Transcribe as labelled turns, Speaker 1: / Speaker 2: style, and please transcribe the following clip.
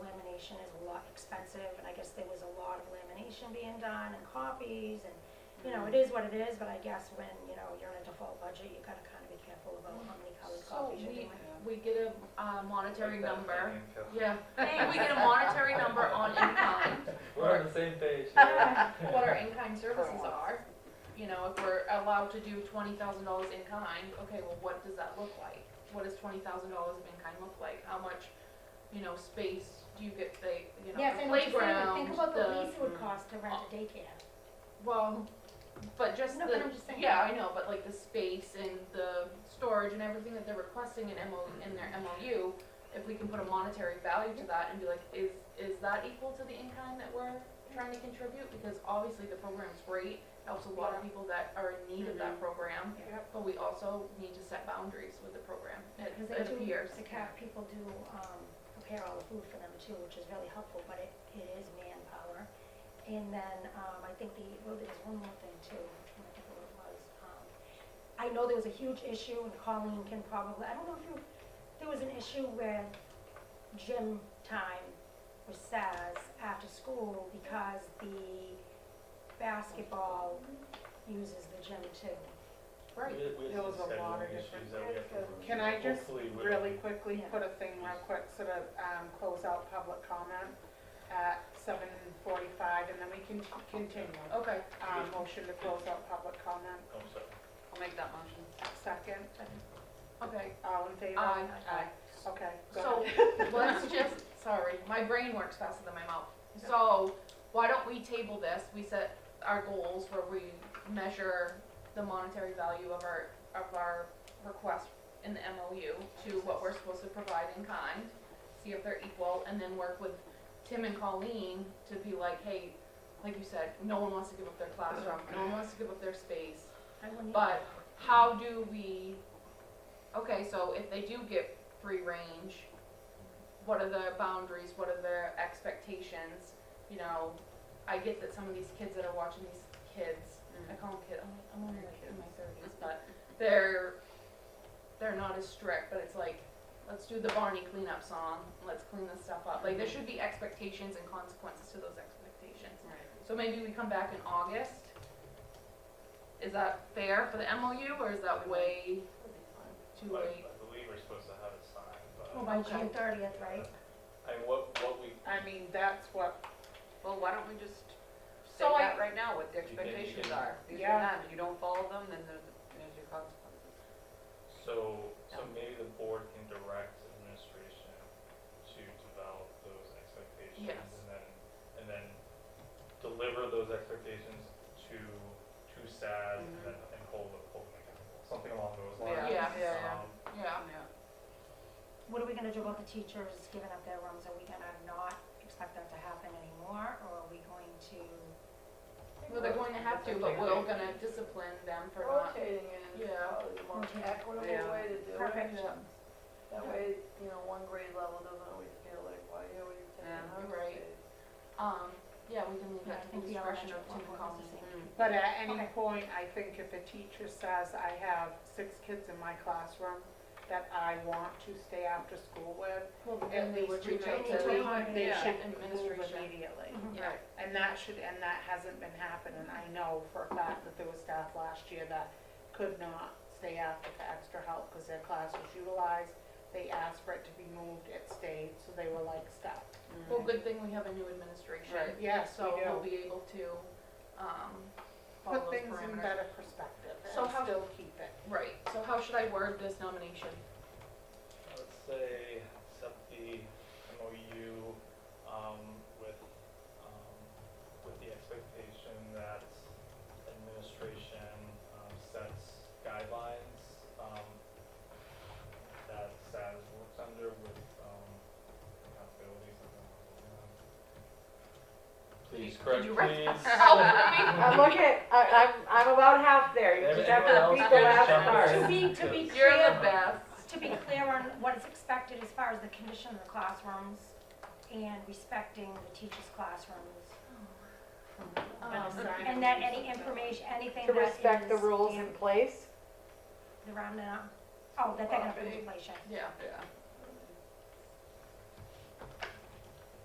Speaker 1: lot expensive, and I guess there was a lot of lamination being done and copies, and, you know, it is what it is, but I guess when, you know, you're in a default budget, you gotta kinda be careful about how many colored
Speaker 2: So
Speaker 1: copies you're
Speaker 2: we,
Speaker 1: doing.
Speaker 2: we get a uh, monetary
Speaker 3: Like that
Speaker 2: number.
Speaker 3: thing, yeah.
Speaker 2: Yeah, hey, we get a monetary number on in-kind,
Speaker 3: We're on the same page.
Speaker 2: what our in-kind services
Speaker 4: once.
Speaker 2: are. You know, if we're allowed to do twenty thousand dollars in-kind, okay, well, what does that look like? What does twenty thousand dollars of in-kind look like? How much, you know, space do you get, the you know,
Speaker 1: Yes,
Speaker 2: the
Speaker 1: and what you said, but
Speaker 2: playground,
Speaker 1: think about the
Speaker 2: the, uh,
Speaker 1: lease it would cost to rent a daycare.
Speaker 2: well, but just the.
Speaker 1: No, but I'm just saying.
Speaker 2: Yeah, I know, but like the space and the storage and everything that they're requesting in MO, in their MOU, if we can put a monetary value to that and be like, is, is that equal to the in-kind that we're trying to contribute? Because obviously the program's great, helps a lot of people that are in need of that program,
Speaker 4: Yep.
Speaker 2: but we also need to set boundaries with the program. It,
Speaker 1: Because
Speaker 2: it
Speaker 1: they do,
Speaker 2: appears.
Speaker 1: the cat, people do, um, prepare all the food for them too, which is really helpful, but it, it is manpower. And then, um, I think the, well, there's one more thing too, I'm trying to think what it was. Um, I know there was a huge issue and Colleen can probably, I don't know if you, there was an issue with gym time with SAS after school because the basketball uses the gym too.
Speaker 2: Right.
Speaker 4: There was a lot of different- Can I just really quickly
Speaker 1: Yeah.
Speaker 4: put a thing real quick, sort of, um, close out public comment at seven forty-five, and then we can c- continue.
Speaker 2: Okay,
Speaker 4: Uh, motion to close out public comment,
Speaker 5: I'll make that motion.
Speaker 4: second,
Speaker 2: okay.
Speaker 4: all in favor?
Speaker 2: Aye.
Speaker 4: Aye, okay, go
Speaker 2: So
Speaker 4: ahead.
Speaker 2: let's just, sorry, my brain works faster than my mouth. So why don't we table this? We set our goals where we measure the monetary value of our, of our request in the MOU to what we're supposed to provide in kind, see if they're equal, and then work with Tim and Colleen to be like, hey, like you said, no one wants to give up their classroom, no one wants to give up their space.
Speaker 1: I wouldn't.
Speaker 2: But how do we, okay, so if they do get free range, what are the boundaries, what are their expectations? You know, I get that some of these kids that are watching these kids, I call them kids, I'm, I'm only like in my thirties, but they're, they're not as strict, but it's like, let's do the Barney cleanup song, let's clean this stuff up. Like, there should be expectations and consequences to those expectations.
Speaker 4: Mm-hmm.
Speaker 2: So maybe we come back in August. Is that fair for the MOU or is that way too
Speaker 3: But
Speaker 2: late?
Speaker 3: I believe we're supposed to have it signed,
Speaker 1: Well,
Speaker 3: but,
Speaker 4: Oh.
Speaker 1: Oh, by
Speaker 2: Okay.
Speaker 1: June thirtieth, right?
Speaker 3: I mean, what, what we,
Speaker 4: I mean, that's what,
Speaker 5: Well, why don't we just say
Speaker 2: So I,
Speaker 5: that right now, what the
Speaker 3: You can- you
Speaker 5: expectations
Speaker 3: can-
Speaker 5: are? These
Speaker 4: Yeah.
Speaker 5: are not, if you don't follow them, then there's, there's your consequences.
Speaker 3: so, so maybe the board can direct administration to develop those expectations
Speaker 2: Yes.
Speaker 3: and then, and then deliver those expectations to, to SAD and
Speaker 4: Mm-hmm.
Speaker 3: then, and hold, them- hold them accountable, something along those lines.
Speaker 2: Yeah. Yeah,
Speaker 5: yeah,
Speaker 3: Um,
Speaker 2: yeah,
Speaker 1: What are we gonna do about the teachers giving up their rooms? Are we gonna not expect that to happen anymore, or are we going to?
Speaker 2: well, they're going to have to, but we're gonna discipline them for not.
Speaker 6: Rotating it is
Speaker 2: Yeah.
Speaker 6: probably the most
Speaker 1: Rotating.
Speaker 6: equitable
Speaker 5: Yeah.
Speaker 6: way to do it.
Speaker 1: Perfect.
Speaker 2: Yeah,
Speaker 6: That way, you know, one grade level doesn't always feel like, why are we taking
Speaker 5: Yeah,
Speaker 6: out
Speaker 2: you're right.
Speaker 6: space?
Speaker 2: Um, yeah, we can leave
Speaker 1: Yeah, I
Speaker 2: that to
Speaker 1: think
Speaker 2: the
Speaker 1: the
Speaker 2: discretion
Speaker 1: elementary
Speaker 2: of
Speaker 1: one
Speaker 2: Tim and
Speaker 1: was the
Speaker 2: Colleen.
Speaker 1: same.
Speaker 4: but at any
Speaker 1: Okay.
Speaker 4: point, I think if a teacher says, I have six kids in my classroom that I want to stay after school with,
Speaker 2: Well,
Speaker 4: at
Speaker 2: then Mm. we
Speaker 4: least
Speaker 2: would
Speaker 4: we
Speaker 2: reach out
Speaker 4: make
Speaker 2: to,
Speaker 1: to
Speaker 2: the-
Speaker 1: the-
Speaker 4: sure they
Speaker 2: yeah,
Speaker 4: should move
Speaker 2: administration. Mm-hmm.
Speaker 4: immediately.
Speaker 2: yeah,
Speaker 4: And that should, and that hasn't been happening. I know for a fact that there was staff last year that could not stay after for extra help because their class was utilized. They asked for it to be moved, it stayed, so they were like stuck.
Speaker 2: well, good thing we have a new administration.
Speaker 5: Right.
Speaker 4: Yes, we
Speaker 2: So we'll
Speaker 4: do.
Speaker 2: be able to, um, follow
Speaker 4: Put
Speaker 2: those
Speaker 4: things in
Speaker 2: parameters.
Speaker 4: better perspective
Speaker 2: So
Speaker 4: and
Speaker 2: how-
Speaker 4: still keep it.
Speaker 2: Right, so how should I word this nomination?
Speaker 3: I would say accept the MOU um, with, um, with the expectation that administration um, sets guidelines um, that SAS works under with um, accountability. something like that. Please correct,
Speaker 2: you write
Speaker 3: please.
Speaker 6: I'm looking, I, I'm, I'm about half there, you just have to
Speaker 3: Everyone
Speaker 6: read
Speaker 3: else gets
Speaker 6: the last
Speaker 3: jumped
Speaker 6: part.
Speaker 3: in.
Speaker 1: To be, to be
Speaker 2: You're the
Speaker 1: clear,
Speaker 2: best.
Speaker 1: to be clear on what is expected as far as the condition of the classrooms and respecting the teachers' classrooms.
Speaker 2: Um,
Speaker 1: And that any information, anything
Speaker 6: To
Speaker 1: that is.
Speaker 6: respect the rules in
Speaker 1: am-
Speaker 6: place,
Speaker 1: The round and up, oh, that they're gonna put into place, yeah.
Speaker 2: Yeah,
Speaker 5: Yeah.